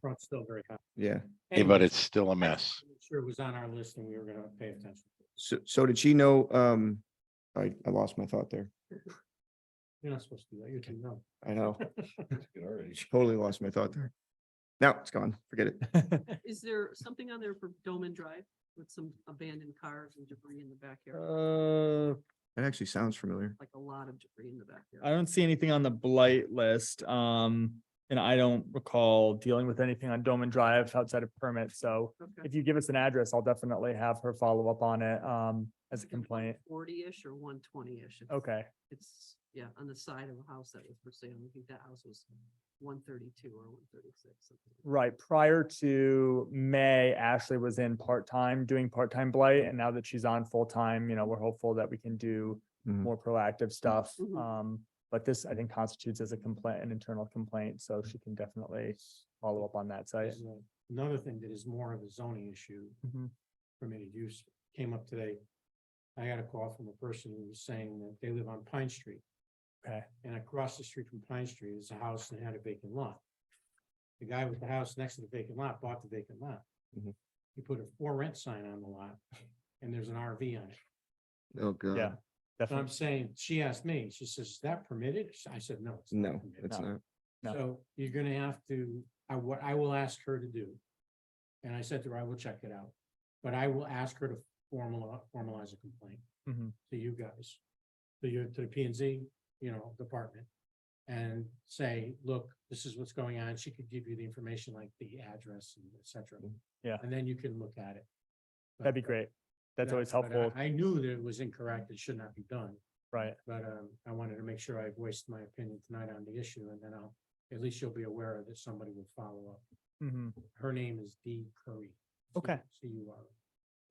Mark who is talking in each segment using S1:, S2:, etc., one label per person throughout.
S1: front's still very high.
S2: Yeah.
S3: Hey, but
S1: Anyway,
S3: it's still a mess.
S1: I'm Sure it was on our list and we were gonna pay attention.
S2: So, so did she know, um, I, I lost my thought there.
S1: You're not supposed to do that. You're too young.
S2: I know. Totally lost my thought there. Now it's gone. Forget it.
S4: Is there something on there for Doman Drive with some abandoned cars and debris in the backyard?
S5: Uh,
S2: That actually sounds familiar.
S4: Like a lot of debris in the backyard.
S5: I don't see anything on the blight list, um, and I don't recall dealing with anything on Doman Drive outside of permit, so
S4: Okay.
S5: if you give us an address, I'll definitely have her follow up on it, um, as a complaint.
S4: Forty-ish or one twenty-ish.
S5: Okay,
S4: It's, yeah, on the side of a house that was for sale. I think that house was one thirty-two or one thirty-six.
S5: right, prior to May, Ashley was in part-time, doing part-time blight, and now that she's on full-time, you know, we're hopeful that we can do
S2: Mhm.
S5: more proactive stuff,
S4: Mhm.
S5: um, but this, I think, constitutes as a complaint, an internal complaint, so she can definitely follow up on that site.
S1: There's a- Another thing that is more of a zoning issue,
S5: Mhm.
S1: permitted use, came up today. I got a call from a person who was saying that they live on Pine Street.
S5: Okay.
S1: And across the street from Pine Street is a house that had a vacant lot. The guy with the house next to the vacant lot bought the vacant lot.
S3: Mm-hmm.
S2: Mhm.
S1: He put a for rent sign on the lot and there's an RV on it.
S2: Oh, God.
S5: Yeah,
S1: So I'm
S5: definitely.
S1: saying, she asked me, she says, is that permitted? I said, no. it's not
S2: No,
S1: permitted."
S2: it's
S5: No.
S2: not.
S5: No.
S1: So you're gonna have to, I, what I will ask her to do. And I said to her, I will check it out, but I will ask her to formal, formalize a complaint
S5: Mhm.
S1: to you guys. To your, to the P and Z, you know, department. And say, look, this is what's going on. She could give you the information like the address and et cetera.
S5: Yeah.
S1: And then you can look at it.
S5: That'd be
S1: But-
S5: great. That's
S1: yeah,
S5: always
S1: but I-
S5: helpful,
S1: I knew that it was incorrect. It should not be done.
S5: right?
S1: But um, I wanted to make sure I voiced my opinion tonight on the issue and then I'll, at least you'll be aware that somebody will follow up.
S5: Mhm.
S1: Her name is Dee Curry.
S5: Okay.
S1: C U R.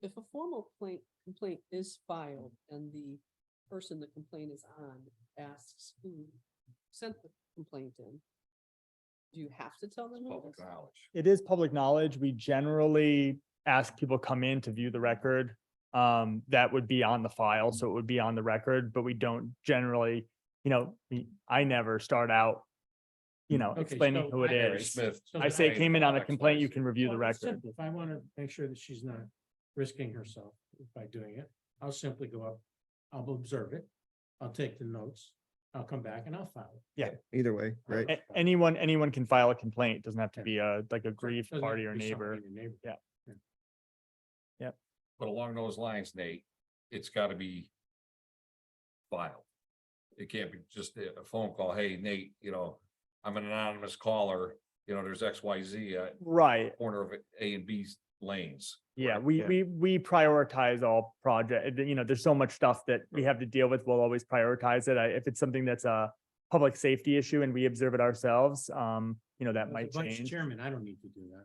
S4: If a formal complaint, complaint is filed and the person the complaint is on asks who sent the complaint in, do you have to tell them? who it is?
S5: It is public knowledge. We generally ask people come in to view the record. Um, that would be on the file, so it would be on the record, but we don't generally, you know, we- I never start out, you know,
S1: Okay,
S5: explaining
S1: so
S5: who it
S1: I- Mary
S5: is.
S6: Smith.
S1: So
S5: I
S1: that
S5: say
S1: I-
S5: it came in on a complaint, you can review the
S1: Well, it's
S5: record.
S1: simple. If I want to make sure that she's not risking herself by doing it, I'll simply go up, I'll observe it, I'll take the notes, I'll come back and I'll file it.
S2: Either way, right?
S5: A- Anyone, anyone can file a complaint. Doesn't have to
S1: Yeah.
S5: be a, like
S1: So
S5: a
S1: it
S5: grieved
S1: doesn't have
S5: party
S1: to
S5: or
S1: be something
S5: neighbor.
S1: in your neighborhood.
S6: But along those lines, Nate, it's gotta be filed. It can't be just a a phone call, hey Nate, you know, I'm an anonymous caller, you know, there's X, Y, Z at
S5: Right.
S6: corner of A and B lanes.
S5: Yeah, we,
S2: Yeah.
S5: we, we prioritize all project, you know, there's so much stuff that we have to deal with. We'll always prioritize it. I- If it's something that's a public safety issue and we observe it ourselves, um, you know, that
S1: As
S5: might
S1: a vice
S5: change.
S1: Chairman, I don't need to do that.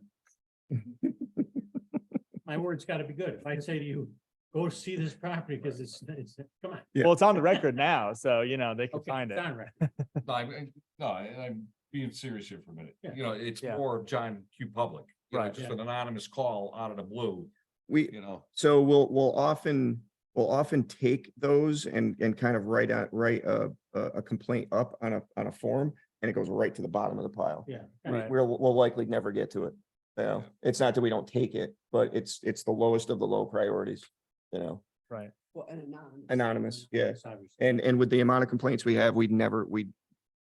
S1: My word's gotta be good. If I say to you, go see this property, because it's, it's, come on.
S2: Yeah.
S5: Well, it's on the record now, so you know, they can
S1: Okay,
S5: find
S1: it's
S5: it.
S1: on record.
S6: No, I'm, no, I- I'm being serious here for a minute.
S1: Yeah.
S6: You know, it's
S5: Yeah.
S6: more of John Q. Public, you know,
S5: Right.
S6: just an anonymous call out of the blue,
S2: We,
S6: you know.
S2: so we'll, we'll often, we'll often take those and, and kind of write out, write a, a a complaint up on a, on a form and it goes right to the bottom of the pile.
S1: Yeah.
S2: We-
S5: Right.
S2: We'll, we'll likely never get to it. You know, it's not that we don't take it, but it's, it's the lowest of the low priorities, you know?
S4: Well, an anonymous.
S2: Anonymous, yeah.
S1: It's obvious.
S2: And, and with the amount of complaints we have, we'd never, we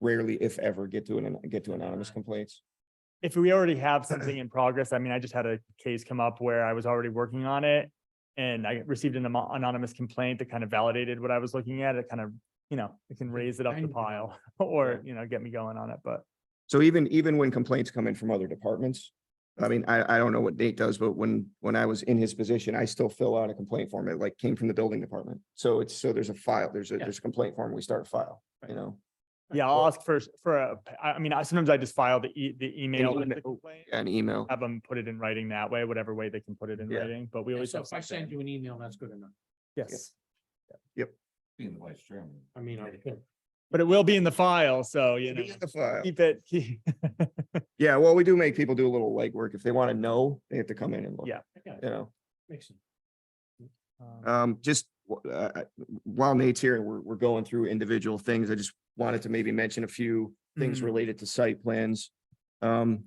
S2: rarely, if ever, get to an, get to anonymous complaints.
S5: If we already have something in progress, I mean, I just had a case come up where I was already working on it. And I received an amo- anonymous complaint that kind of validated what I was looking at. It kind of, you know, it can raise it up
S1: Kind
S5: the
S1: of
S5: pile or, you know, get me going on it, but.
S2: So even, even when complaints come in from other departments, I mean, I, I don't know what Nate does, but when, when I was in his position, I still fill out a complaint form. It like came from the building department. So it's, so there's a file, there's a,
S1: Yeah.
S2: there's a complaint form, we start a file, you know?
S5: Yeah, I'll ask first for, a p- I I mean, I sometimes I just file the e, the email with
S2: email.
S5: the complaint.
S2: An email.
S5: Have them put it in writing that way, whatever way they can put it in
S2: Yeah.
S5: writing, but we
S1: And
S5: always
S1: So
S5: have
S1: if I send
S5: something.
S1: you an email, that's good enough.
S5: Yes,
S6: Being the vice chairman.
S1: I mean, I could.
S5: but it will be in the file, so you know,
S2: Be in the file.
S5: keep it, keep-
S2: Yeah, well, we do make people do a little legwork. If they want to know, they have to come in and look.
S5: Yeah.
S1: I got it.
S2: You know?
S1: Makes sense.
S5: um,
S2: Um, just, wh- uh, I- while Nate's here, and we're, we're going through individual things. I just wanted to maybe mention a few things
S5: Mhm.
S2: related to site plans. Um,